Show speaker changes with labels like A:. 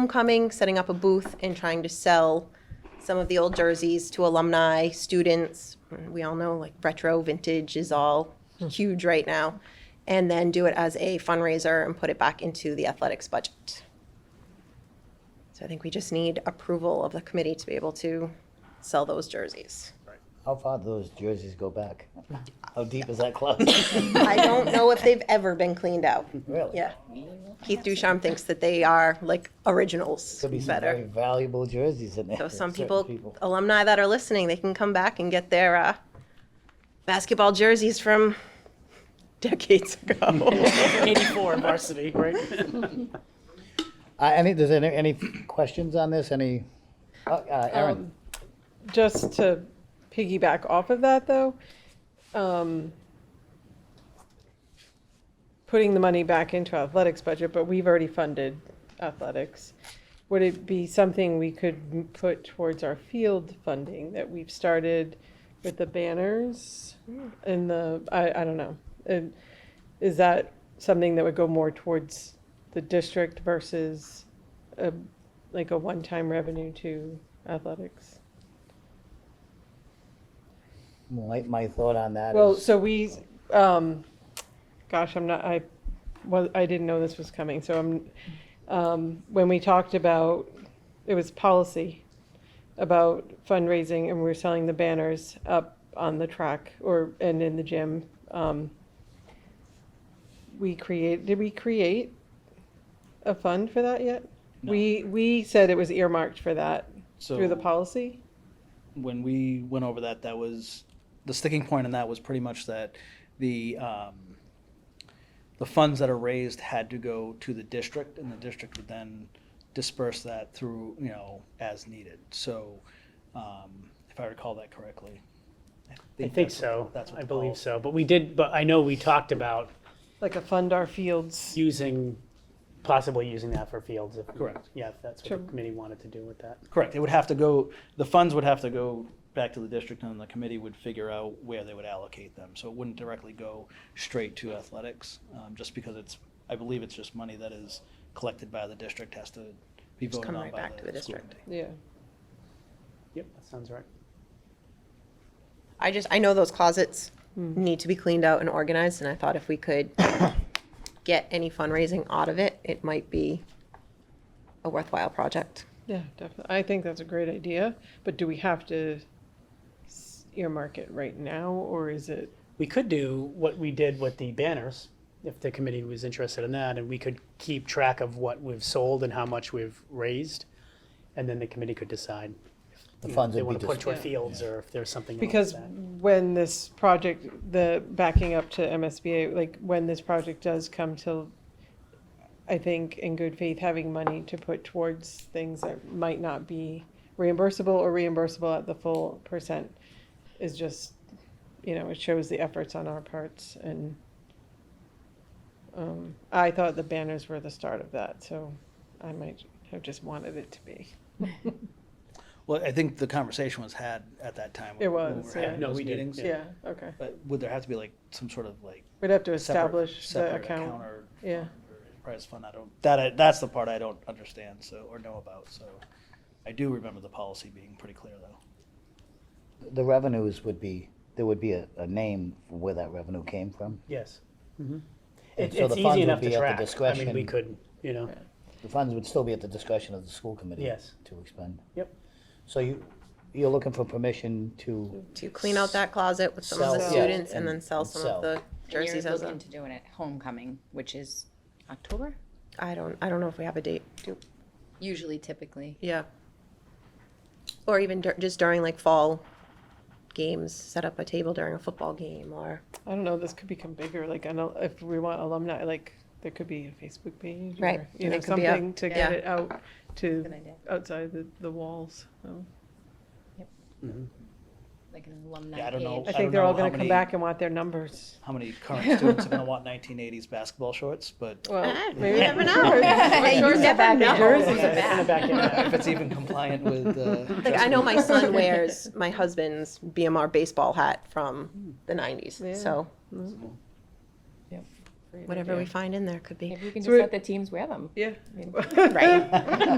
A: homecoming, setting up a booth and trying to sell some of the old jerseys to alumni, students. We all know like retro vintage is all huge right now. And then do it as a fundraiser and put it back into the athletics budget. So I think we just need approval of the committee to be able to sell those jerseys.
B: How far do those jerseys go back? How deep is that closet?
A: I don't know if they've ever been cleaned out.
B: Really?
A: Yeah. Keith Ducharme thinks that they are like originals
B: Could be some very
A: better.
B: valuable jerseys in there.
A: So
B: for
A: some
B: certain
A: people, alumni that are listening, they can come back and get their uh, basketball jerseys from decades ago.
C: 84 varsity, right?
B: Uh, any, does any, any questions on this? Any, uh, uh, Aaron?
D: just to piggyback off of that though, um, putting the money back into athletics budget, but we've already funded athletics. Would it be something we could m- put towards our field funding that we've started with the banners and the, I, I don't know. And Is that something that would go more towards the district versus a, like a one-time revenue to athletics?
B: My, my thought on that
D: Well,
B: is,
D: so we, um, gosh, I'm not, I, was, I didn't know this was coming, so I'm, um, when we talked about, it was policy about fundraising and we were selling the banners up on the track or, and in the gym. Um, we create, did we create a fund for that yet? We, we said it was earmarked for that through the
C: So-
D: policy?
C: when we went over that, that was the sticking point in that was pretty much that the um, the funds that are raised had to go to the district, and the district would then disperse that through you know as needed. So, um, if I recall that correctly,
E: I think
C: that's-
E: so.
C: That's what
E: I
C: the
E: believe
C: policy-
E: so. But we did, but I know we talked about
D: Like a fund our fields,
E: using, possibly using that for fields. if-
C: Correct.
E: Yeah, if that's what
D: Sure.
E: the committee wanted to do with that.
C: Correct. It would have to go. The funds would have to go back to the district, and the committee would figure out where they would allocate them. So it wouldn't directly go straight to athletics, um, just because it's. I believe it's just money that is collected by the district has to be voted
A: come
C: on
A: right
C: by
A: back to the
C: school
A: district.
C: committee.
D: yeah.
E: Yep, that sounds right.
A: I just, I know those closets
F: Hmm.
A: need to be cleaned out and organized, and I thought if we could get any fundraising out of it, it might be a worthwhile project.
D: Yeah, definitely. I think that's a great idea, but do we have to s- earmark it right now, or is it?
E: We could do what we did with the banners, if the committee was interested in that, and we could keep track of what we've sold and how much we've raised. And then the committee could decide. if,
B: The
E: you know,
B: funds
E: They
B: would be
E: want to put toward
D: dispersed.
E: fields or if there's something else.
D: Because
E: that-
D: when this project, the, backing up to MSBA, like, when this project does come to, I think in good faith, having money to put towards things that might not be reimbursable or reimbursable at the full percent is just, you know, it shows the efforts on our parts and um, I thought the banners were the start of that, so I might have just wanted it to be.
C: Well, I think the conversation was had at that time.
D: It
C: when we
D: was,
C: were having
D: yeah.
E: No,
C: those
E: we did,
C: meetings.
D: Yeah, okay.
C: But would there have to be like some sort of like
D: We'd have to
C: separate,
D: establish the
C: separate
D: account.
C: or
D: Yeah.
C: enterprise fund? I don't. That I, that's the part I don't understand. So or know about. So I do remember the policy being pretty clear though.
B: the revenues would be, there would be a, a name for where that revenue came from.
E: Yes.
B: And
E: It-
B: so the
E: It's
B: funds
E: easy
B: would
E: enough
B: be
E: to
B: at the
E: track. I mean, we
B: discretion-
E: could, you know,
B: The funds would still be at the discretion of the school committee.
E: Yes.
B: To expend.
E: Yep.
B: So you, you're looking for permission to,
A: to clean out that closet with some of the
D: Sell, yeah,
A: students and
B: and-
A: then sell
B: and
A: some
B: sell.
A: of the
F: And
A: jerseys
F: You're
A: as
F: looking
A: a,
F: to doing it homecoming, which is October,
A: I don't, I don't know if we have a date. Do-
F: usually typically.
A: Yeah. Or even dur- just during like fall games, set up a table during a football game or,
D: I don't know, this could become bigger, like, I know, if we want alumni, like, there could be a Facebook page. or,
A: Right,
D: You
A: and
D: know,
A: it could be up,
D: something to
F: yeah.
D: get it out to,
F: Good idea.
D: outside the, the walls. so.
F: Like an alumni
C: Yeah, I don't know.
F: page.
D: I
C: I
D: think they're
C: know
D: all
C: how
D: gonna come
C: many-
D: back and want their numbers.
C: how many current students are going to want 1980s basketball shorts, but
D: Well,
A: Ah,
D: maybe.
A: you never know.
F: Jerseys are back. Jerseys are
E: in the
F: back.
E: back end.
C: if it's even compliant with. Uh,
A: Like I know my son wears my husband's BMR baseball hat from the nineties,
D: Yeah.
A: so.
F: great
G: whatever we
F: idea.
G: find in there could be.
F: Maybe we can
A: So
F: just
A: it-
F: let the teams wear them.
A: Yeah.
F: I mean,
H: Right.